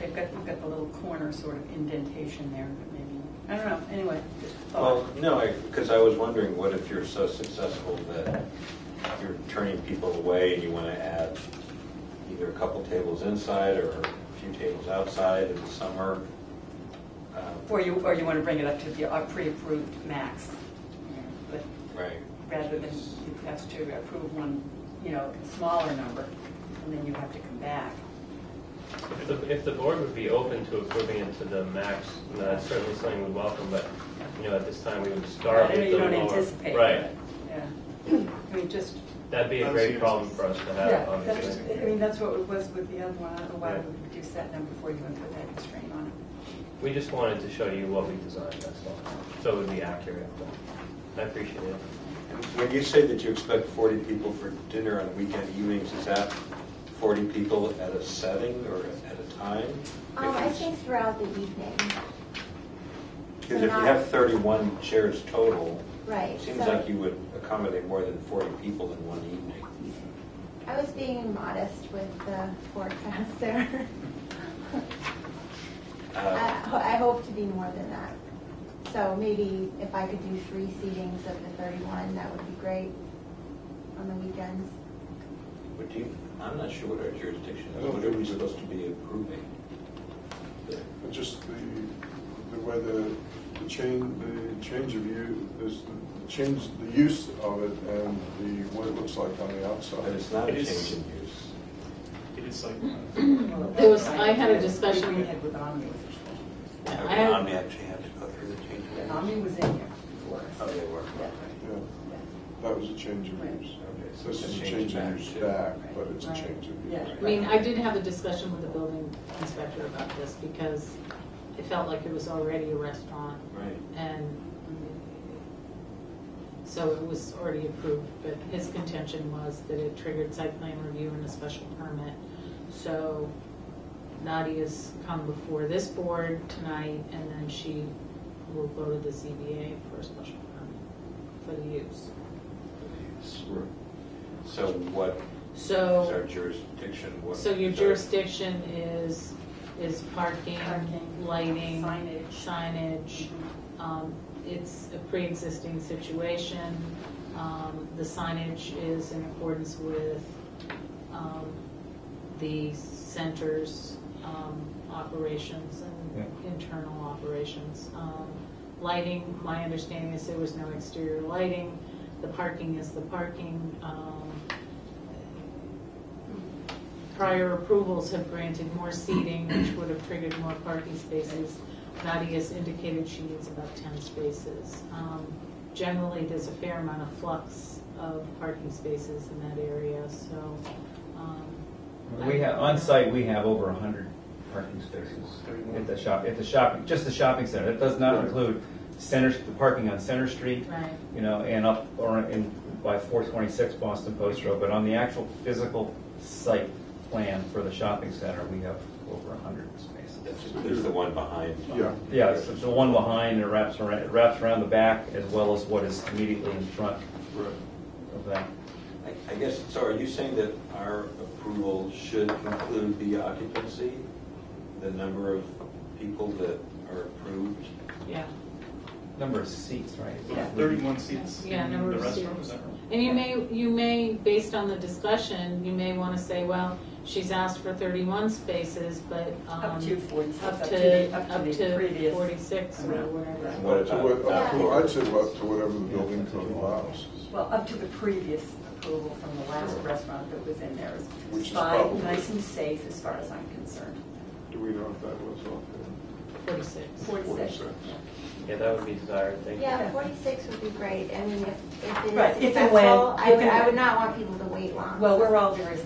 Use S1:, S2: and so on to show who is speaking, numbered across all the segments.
S1: They've got, you've got the little corner sort of indentation there, but maybe, I don't know, anyway, just a
S2: Well,
S1: thought.
S2: no, because I was wondering, what if you're so successful that you're turning people away and you want to add either a couple tables inside or a few tables outside in the summer? Um,
S1: Or you, or you want to bring it up to the uh, pre-approved max, but
S2: Right.
S1: rather than, you have to approve one, you know, smaller number, and then you have to come back.
S3: If the, if the board would be open to approving it to the max, then that's certainly something we'd welcome, but, you know, at this time, we would start
S1: I know
S3: with
S1: you
S3: the
S1: don't
S3: lower-
S1: anticipate.
S3: Right,
S1: but, Yeah, I mean, just,
S3: that'd be a great problem for us to
S1: yeah,
S3: have,
S1: that's just, I mean,
S3: obviously.
S1: that's what it was with the other one, I don't know why
S3: Yeah.
S1: we would reduce that number for you and put that constraint on it.
S3: We just wanted to show you what we designed, that's all, so it would be accurate, but I appreciate it.
S2: And When you say that you expect 40 people for dinner on weekend evenings, is that 40 people at a setting or at a time?
S4: Um, I think throughout the evening,
S2: Because if you have 31 chairs total,
S4: right.
S2: it seems
S4: so
S2: like you would accommodate more than 40 people in one evening.
S4: I was being modest with the forecast there.
S2: Uh,
S4: I, I hope to be more than that. So maybe if I could do three seatings of the thirty-one, that would be great on the weekends.
S2: Would you, I'm not sure what our jurisdiction
S5: I
S2: is,
S5: don't
S2: what are we
S5: think so.
S2: supposed to be approving?
S5: But Just the, the way the, the change, the change of you, is the change, the use of it and the, what it looks like on the
S2: But
S5: outside.
S2: it's not a
S6: It
S2: change
S6: is-
S2: in use.
S6: It is like,
S7: There was- I had a discussion-
S1: We had with Omni was a
S7: I
S2: Now,
S7: had-
S2: Omni actually had to go through the change
S1: And
S2: of use.
S1: Omni was in here for us.
S2: Oh, they were.
S1: Yeah.
S5: Yeah, that was a change of use.
S2: Okay, so
S5: This
S2: it's
S5: is
S2: a
S5: a
S2: change
S5: change
S2: back
S5: of use
S2: to-
S5: back, but it's a
S1: Right.
S5: change of use.
S1: Yeah.
S7: I mean, I did have a discussion with the building inspector about this because it felt like it was already a restaurant
S2: Right.
S7: and so it was already approved, but his contention was that it triggered site plan review and a special permit. So Nadia's come before this board tonight and then she will go to the ZBA for a special permit for the use.
S2: So what
S7: So.
S2: is our jurisdiction? What-
S7: So your
S2: sorry.
S7: jurisdiction is, is parking,
S1: Parking,
S7: lighting,
S1: signage. Mm-hmm.
S7: signage. Um, It's a pre-existing situation. Um, The signage is in accordance with um, the center's um, operations and internal operations. Um, Lighting, my understanding is there was no exterior lighting. The parking is the parking. Um, prior approvals have granted more seating, which would have triggered more parking spaces. Nadia's indicated she needs about 10 spaces. Um, Generally, there's a fair amount of flux of parking spaces in that area, so. um,
S8: We have, on site, we have over a hundred parking spaces at the shop, at the shopping, just the shopping center. That does not include center, the parking on Center Street,
S7: Right,
S8: you know, and up, or in, by four twenty-six Boston Post Road. But on the actual physical site plan for the shopping center, we have over a hundred spaces.
S2: That's- There's the one behind.
S5: Yeah.
S8: Yeah, it's it's the one behind, it wraps around, it wraps around the back as well as what is immediately in front
S5: Right.
S8: of that.
S2: I- I guess, so are you saying that our approval should include the occupancy? The number of people that are approved?
S7: yeah.
S8: Number of seats, right?
S1: Yeah.
S6: thirty-one seats
S7: Yeah,
S6: in
S7: number
S6: the
S7: of
S6: restaurant,
S7: seats.
S6: is that right?
S7: And you may, you may, based on the discussion, you may want to say, well, she's asked for 31 spaces, but.
S1: Up
S7: um,
S1: to 46,
S7: Up
S1: the-
S7: to,
S1: up to the previous.
S7: 46 or
S1: amount.
S7: whatever.
S2: What
S5: Up to
S2: about
S5: what, up to,
S2: outdoors?
S5: I'd say up to whatever the building code allows.
S1: Well, up to the previous approval from the last restaurant that was in there. It's
S5: Which is
S1: fine,
S5: probably-
S1: Nice and safe as far as I'm concerned.
S5: Do we know if that was up there?
S7: 46.
S1: Forty-six.
S5: 46.
S3: Yeah, that would be desired, thank you.
S4: Yeah, forty-six would be great. I mean, if, if
S1: Right,
S4: it is
S1: if and
S4: successful,
S1: when-
S4: I
S1: if
S4: would,
S1: and
S4: I would
S1: when.
S4: not want people to wait long.
S1: Well, we're all very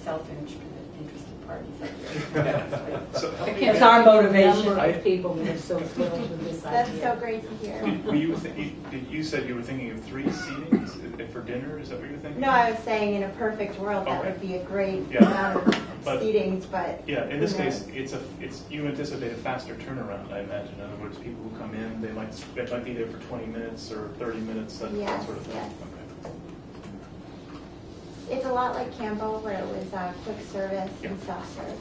S1: self-interested parties up here.
S6: So how many-
S1: It's our motivation.
S7: Number of people that are so thrilled with this
S4: That's so
S7: idea.
S4: great to hear.
S6: Did- Were you, thi- you- you said you were thinking of three seatings i- for dinner, is that what you were thinking?
S4: No, I was saying in a perfect world, that
S6: Okay.
S4: would be a great
S6: Yeah.
S4: amount of
S6: But-
S4: seatings, but.
S6: Yeah, in this
S4: who
S6: case,
S4: knows?
S6: it's a, it's, you anticipate a faster turnaround, I imagine. In other words, people who come in, they might, they might be there for twenty minutes or thirty minutes, that that
S4: Yes,
S6: sort of thing.
S4: yes.
S6: Okay.
S4: It's a lot like Campbell where it was uh, quick service and
S6: Yeah.
S4: self-serve.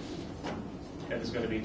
S6: And there's gonna be